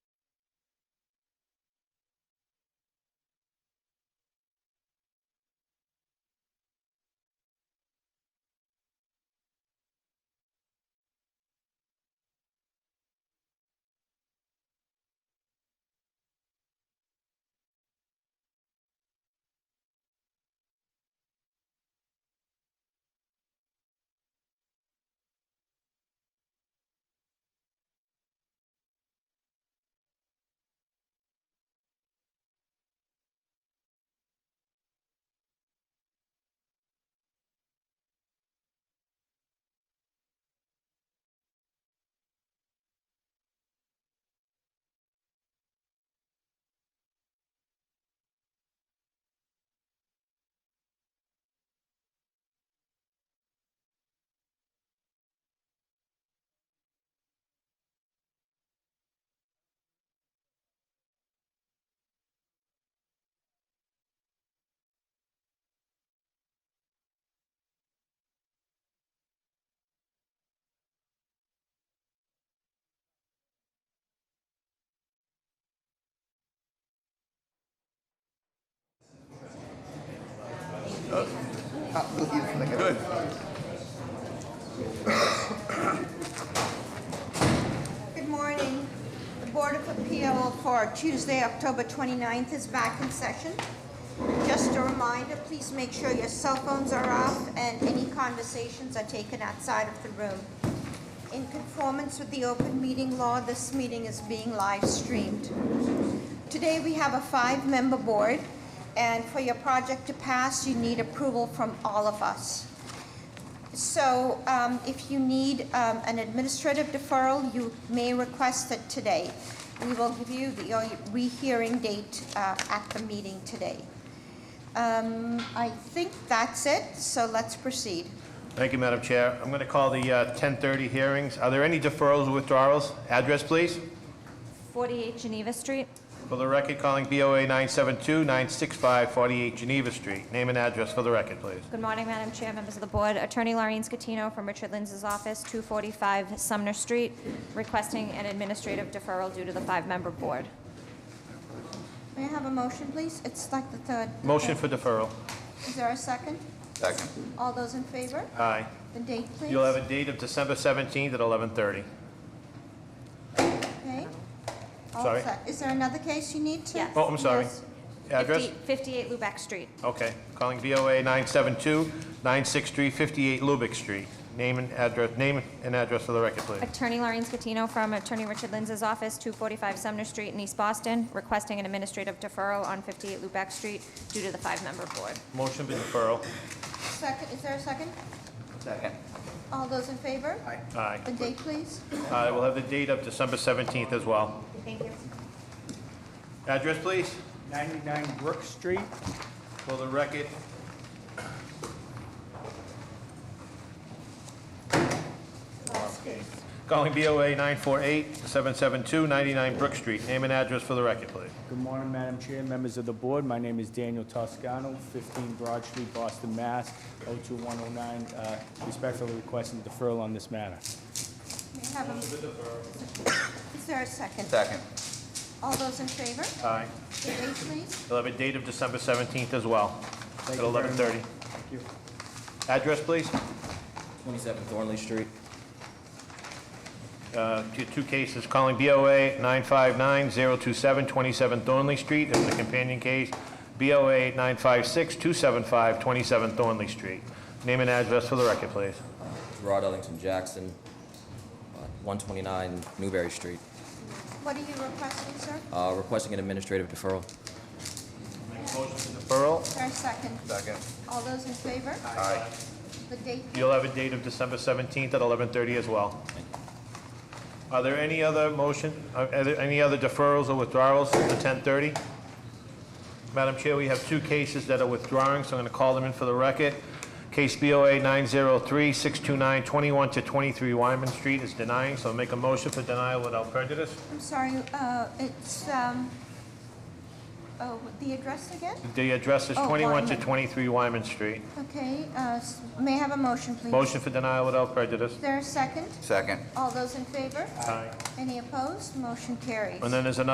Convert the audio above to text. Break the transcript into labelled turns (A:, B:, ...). A: Good.
B: Good morning. The Board of Appeal for Tuesday, October 29th is back in session. Just a reminder, please make sure your cell phones are off and any conversations are taken outside of the room. In conformance with the open meeting law, this meeting is being live streamed. Today, we have a five-member board, and for your project to pass, you need approval from all of us. So um, if you need um, an administrative deferral, you may request it today. We will give you the uh, rehearing date uh, at the meeting today. Um, I think that's it, so let's proceed.
A: Thank you, Madam Chair. I'm going to call the uh, 10:30 hearings. Are there any deferrals or withdrawals? Address, please.
C: 48 Geneva Street.
A: For the record, calling BOA 972-965-48 Geneva Street. Name and address for the record, please.
C: Good morning, Madam Chair, members of the board. Attorney Laureen Scatino from Richard Linz's office, 245 Sumner Street, requesting an administrative deferral due to the five-member board.
B: May I have a motion, please? It's like the third.
A: Motion for deferral.
B: Is there a second?
D: Second.
B: All those in favor?
A: Aye.
B: The date, please.
A: You'll have a date of December 17th at 11:30.
B: Okay. All
A: Sorry.
B: set. Is there another case you need to?
C: Yes.
A: Oh, I'm sorry.
B: Yes.
A: Address?
C: 50 58 Lubeck Street.
A: Okay. Calling BOA 972-963-58 Lubick Street. Name and address, name and address for the record, please.
C: Attorney Laureen Scatino from Attorney Richard Linz's office, 245 Sumner Street in East Boston, requesting an administrative deferral on 58 Lubeck Street due to the five-member board.
A: Motion for deferral.
B: Second, is there a second?
D: Second.
B: All those in favor?
A: Aye.
B: The date, please.
A: Uh, We'll have the date of December 17th as well.
C: Thank you.
A: Address, please.
E: 99 Brook Street.
A: For the record,
B: Last case.
A: calling BOA 948-772-99 Brook Street. Name and address for the record, please.
E: Good morning, Madam Chair, members of the board. My name is Daniel Toscano, 15 Broad Street, Boston, Mass. 02109. Uh, Respectfully requesting deferral on this matter.
B: May I have a- Is there a second?
D: Second.
B: All those in favor?
A: Aye.
B: The date, please.
A: We'll have a date of December 17th as well, at
E: you very
A: 11:30.
E: Thank you.
A: Address, please.
D: 27 Thornley Street.
A: Uh, two- Two cases, calling BOA 959-027, 27 Thornley Street. It was a companion case, BOA 956-275, 27 Thornley Street. Name and address for the record, please.
D: Rod Ellington Jackson, uh, 129 Newberry Street.
B: What are you requesting, sir?
D: Uh, Requesting an administrative deferral.
A: Deferral.
B: Is there a second?
D: Second.
B: All those in favor? The date, please.
A: You'll have a date of December 17th at 11:30 as well. Are there any other motion, uh, are there any other deferrals or withdrawals to 10:30? Madam Chair, we have two cases that are withdrawing, so I'm going to call them in for the record. Case BOA 903-629-21 to 23 Wyman Street is denying, so make a motion for denial without prejudice.
B: I'm sorry, uh, it's, um, oh, the address again?
A: The address is
B: Oh,
A: 21 to
B: Wyman.
A: 23 Wyman Street.
B: Okay, uh, s- may I have a motion, please?
A: Motion for denial without prejudice.
B: Is there a second?
D: Second.
B: All those in favor?
A: Aye.
B: Any opposed? Motion carries.
A: And then there's another